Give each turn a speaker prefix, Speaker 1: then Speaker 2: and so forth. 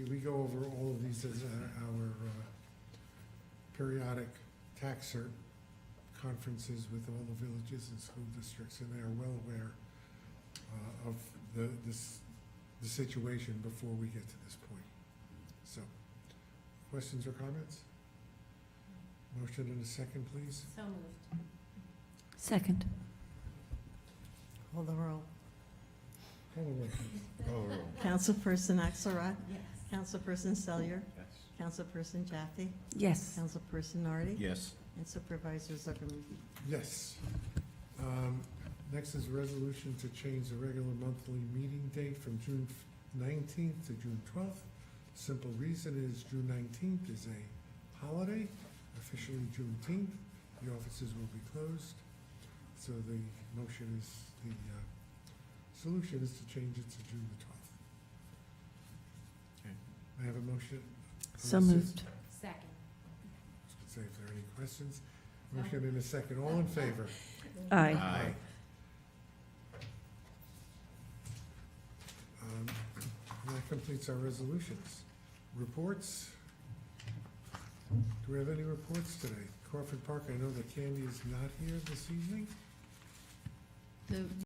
Speaker 1: we go over all of these as our- our uh, periodic tax cert conferences with all the villages and school districts, and they are well aware uh, of the, this, the situation before we get to this point. So, questions or comments? Motion and a second, please.
Speaker 2: So moved.
Speaker 3: Second.
Speaker 4: Call the roll.
Speaker 1: Call the roll, please.
Speaker 4: Councilperson Axelrod,
Speaker 2: Yes.
Speaker 4: Councilperson Selyer, Councilperson Jaffe,
Speaker 3: Yes.
Speaker 4: Councilperson Nardi,
Speaker 5: Yes.
Speaker 4: and Supervisor Zuckerman.
Speaker 1: Yes. Um, Next is a resolution to change the regular monthly meeting date from June nineteenth to June twelfth. Simple reason is June nineteenth is a holiday, officially Juneteenth. The offices will be closed. So the motion is, the uh, solution is to change it to June the twelfth.
Speaker 5: Okay.
Speaker 1: I have a motion.
Speaker 3: So
Speaker 1: This is-
Speaker 3: moved.
Speaker 2: Second.
Speaker 1: I was gonna say, if there are any questions,
Speaker 2: No.
Speaker 1: motion in a second. All in favor?
Speaker 3: Aye.
Speaker 5: Aye.
Speaker 1: Um, That completes our resolutions. Reports? Do we have any reports today? Crawford Park, I know that Candy is not here this evening.
Speaker 4: The